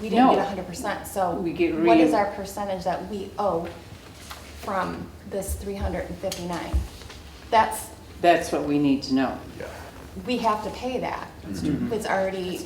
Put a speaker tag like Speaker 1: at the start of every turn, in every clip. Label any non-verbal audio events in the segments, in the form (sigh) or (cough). Speaker 1: we didn't
Speaker 2: No.
Speaker 1: get hundred percent, so.
Speaker 2: We get
Speaker 1: What
Speaker 2: re-
Speaker 1: is our percentage that we owe from this three hundred and fifty-nine? That's,
Speaker 2: That's what we need to know.
Speaker 3: Yeah.
Speaker 1: we have to pay that.
Speaker 3: Mm-hmm.
Speaker 1: It's already,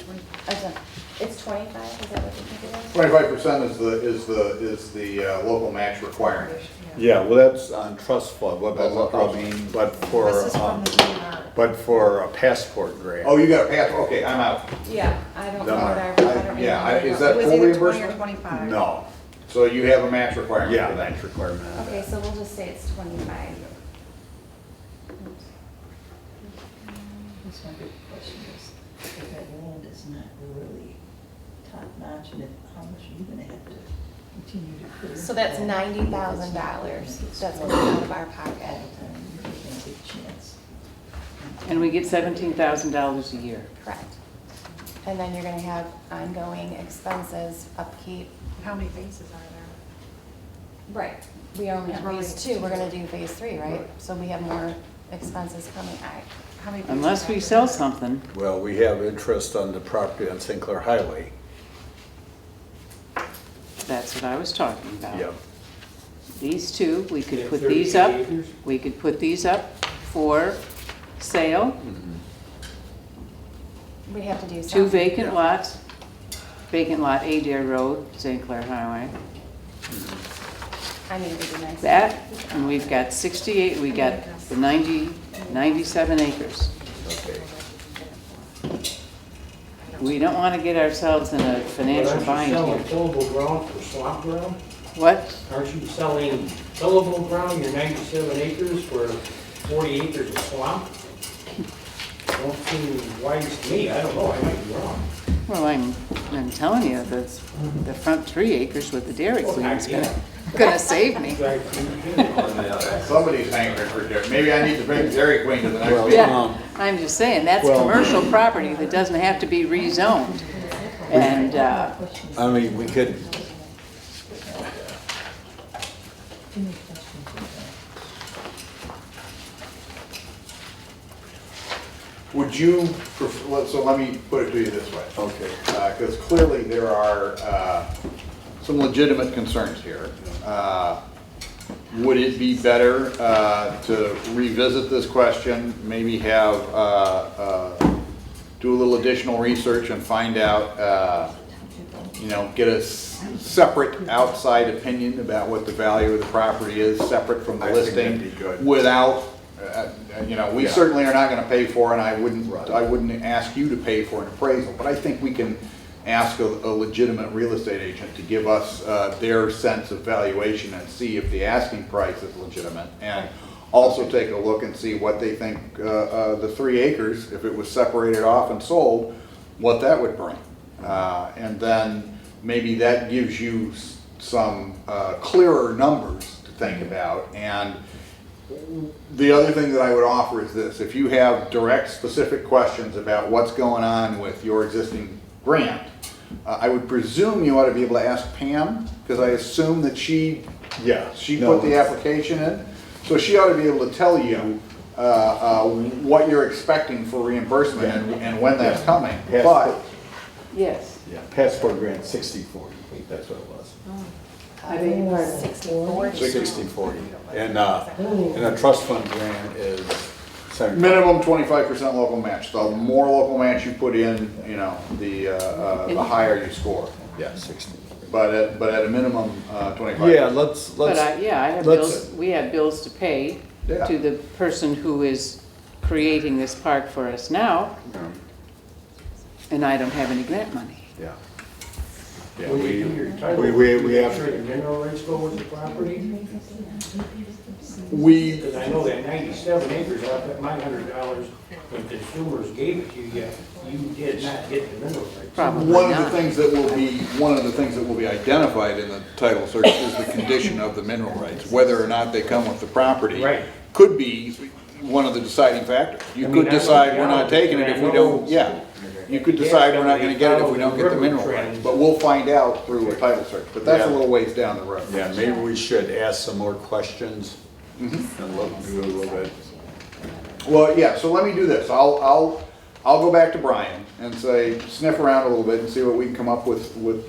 Speaker 1: it's twenty-five, is that what you think it is?
Speaker 3: Twenty-five percent is the, is the, is the uh, local match requirement.
Speaker 4: Yeah, well, that's on trust fund, but,
Speaker 3: That's on trust.
Speaker 4: I mean, but
Speaker 5: This
Speaker 4: for,
Speaker 5: is from
Speaker 4: um,
Speaker 5: the DNR.
Speaker 4: but for a passport grant.
Speaker 3: Oh, you got a pass, okay, I'm out.
Speaker 1: Yeah, I don't know
Speaker 4: No,
Speaker 1: that, I
Speaker 3: I-
Speaker 1: don't remember.
Speaker 3: yeah, I- is
Speaker 5: It
Speaker 3: that
Speaker 5: was
Speaker 3: full
Speaker 5: either twenty or
Speaker 3: reimbursement?
Speaker 5: twenty-five.
Speaker 4: No,
Speaker 3: So you have a match requirement
Speaker 4: yeah,
Speaker 3: for that.
Speaker 4: that's requirement. on
Speaker 1: Okay,
Speaker 4: that.
Speaker 1: so we'll just say it's twenty-five.
Speaker 6: That's my big question is, if that land is not really top notch, and if, how much are you gonna have to continue to clear?
Speaker 1: So that's ninety thousand dollars, that's going out of our
Speaker 6: All
Speaker 1: pocket.
Speaker 6: the time, you're gonna get a chance.
Speaker 2: And we get seventeen thousand dollars a year.
Speaker 1: Correct. And then you're gonna have ongoing expenses, upkeep.
Speaker 5: How many bases are
Speaker 1: Right. We only have
Speaker 5: Yeah, we're
Speaker 1: phase
Speaker 5: only-
Speaker 1: two, we're gonna do phase three, right? So we have more expenses coming, I,
Speaker 5: there? How many? bases
Speaker 2: Unless
Speaker 5: are
Speaker 2: we
Speaker 5: there?
Speaker 2: sell something,
Speaker 4: Well, we have interest on the property on St. Clair Highway.
Speaker 2: that's what I was talking
Speaker 3: Oh.
Speaker 2: about.
Speaker 4: Yeah,
Speaker 2: These two, we could put these up, we could put these up for sale,
Speaker 1: we have to do some.
Speaker 2: two vacant lots, vacant lot Adair Road, St. Clair Highway.
Speaker 1: I need to do next.
Speaker 2: That, and we've got sixty-eight, we got the ninety, ninety-seven acres.
Speaker 4: okay.
Speaker 2: We don't want to get ourselves in a financial
Speaker 7: Aren't
Speaker 2: bind
Speaker 7: you selling
Speaker 2: here.
Speaker 7: tillable ground for swamp ground?
Speaker 2: What?
Speaker 7: Aren't you selling tillable ground, your 97 acres for 40 acres of swamp? Don't seem wise to me, I don't know, I might be wrong.
Speaker 2: Well, I'm, I'm telling you, that's, the front three acres with the dairy
Speaker 7: Well,
Speaker 2: queen is
Speaker 7: Oh, yeah.
Speaker 2: gonna, gonna save
Speaker 7: (laughs)
Speaker 2: me.
Speaker 7: Guys, you do.
Speaker 3: Somebody's angry for Dairy, maybe I need to bring Dairy Queen to the next
Speaker 4: Well,
Speaker 3: meeting.
Speaker 4: Um,
Speaker 2: Yeah, I'm just saying, that's
Speaker 4: Well-
Speaker 2: commercial property that doesn't have to be rezoned. And, uh,
Speaker 6: Question is,
Speaker 4: I mean, we could,
Speaker 6: too many questions in there.
Speaker 3: Would you, pref- let- so let me put it to you this way.
Speaker 4: Okay.
Speaker 3: Because clearly there are uh, some legitimate concerns here. Uh, Would it be better uh, to revisit this question, maybe have, uh, uh, do a little additional research and find out, uh, you know, get a s- separate outside opinion about what the value of the property is, separate from the
Speaker 4: I think that'd
Speaker 3: listing?
Speaker 4: be good.
Speaker 3: Without, uh, uh, you know, we
Speaker 4: Yeah.
Speaker 3: certainly are not gonna pay for, and I wouldn't,
Speaker 4: Right.
Speaker 3: I wouldn't ask you to pay for an appraisal, but I think we can ask a a legitimate real estate agent to give us uh, their sense of valuation and see if the asking price is legitimate. And also take a look and see what they think, uh, uh, the three acres, if it was separated off and sold, what that would bring. Uh, And then maybe that gives you s- some uh, clearer numbers to think about. And the other thing that I would offer is this, if you have direct, specific questions about what's going on with your existing grant, uh, I would presume you ought to be able to ask Pam, because I assume that she,
Speaker 4: yeah.
Speaker 3: she
Speaker 4: no,
Speaker 3: put the application in. So she ought to be able to tell you, uh, uh, what you're expecting for reimbursement and, and when that's coming.
Speaker 4: Yeah.
Speaker 3: But,
Speaker 2: yes,
Speaker 4: Yeah, passport grant sixty-four, I think that's what it was.
Speaker 2: I beg your pardon.
Speaker 1: Sixty-four.
Speaker 4: Sixty, forty. And, uh, and a trust fund grant is. seventy-
Speaker 3: minimum twenty-five percent local match, the more local match you put in, you know, the, uh, uh, the higher you score.
Speaker 4: Yeah, sixty.
Speaker 3: But at, but at a minimum, uh, twenty-five.
Speaker 4: Yeah, let's,
Speaker 2: But I,
Speaker 4: let's,
Speaker 2: yeah, I have
Speaker 4: let's-
Speaker 2: bills, we have bills to pay
Speaker 3: Yeah.
Speaker 2: to the person who is creating this park for us now, and I don't have any grant money.
Speaker 4: yeah. Yeah,
Speaker 7: Will you do
Speaker 4: we,
Speaker 7: your title?
Speaker 4: we- we- we have-
Speaker 7: Sure, your mineral rights go with the property?
Speaker 3: We,
Speaker 7: Because I know that 97 acres, I bet my $100 when consumers gave it to you, yet you did not get the mineral rights.
Speaker 2: Probably
Speaker 3: One of the
Speaker 2: not.
Speaker 3: things that will be, one of the things that will be identified in the title search is the condition of the mineral rights, whether or not they come with the property.
Speaker 7: Right.
Speaker 3: Could be one of the deciding factors.
Speaker 7: I
Speaker 3: You
Speaker 7: mean,
Speaker 3: could
Speaker 7: I know
Speaker 3: decide
Speaker 7: the
Speaker 3: we're not
Speaker 7: Alamo,
Speaker 3: taking it
Speaker 7: and I
Speaker 3: if we
Speaker 7: know-
Speaker 3: don't, yeah. You could
Speaker 7: Yeah,
Speaker 3: decide we're not gonna
Speaker 7: somebody
Speaker 3: get it if we don't
Speaker 7: follows
Speaker 3: get the
Speaker 7: river
Speaker 3: mineral
Speaker 7: trends.
Speaker 3: rights, but we'll find out through a title search, but that's a
Speaker 4: Yeah.
Speaker 3: little ways down the road.
Speaker 4: yeah, maybe we should ask some more questions and look, do a little bit.
Speaker 3: Well, yeah, so let me do this. I'll, I'll, I'll go back to Brian and say, sniff around a little bit and see what we can come up with, with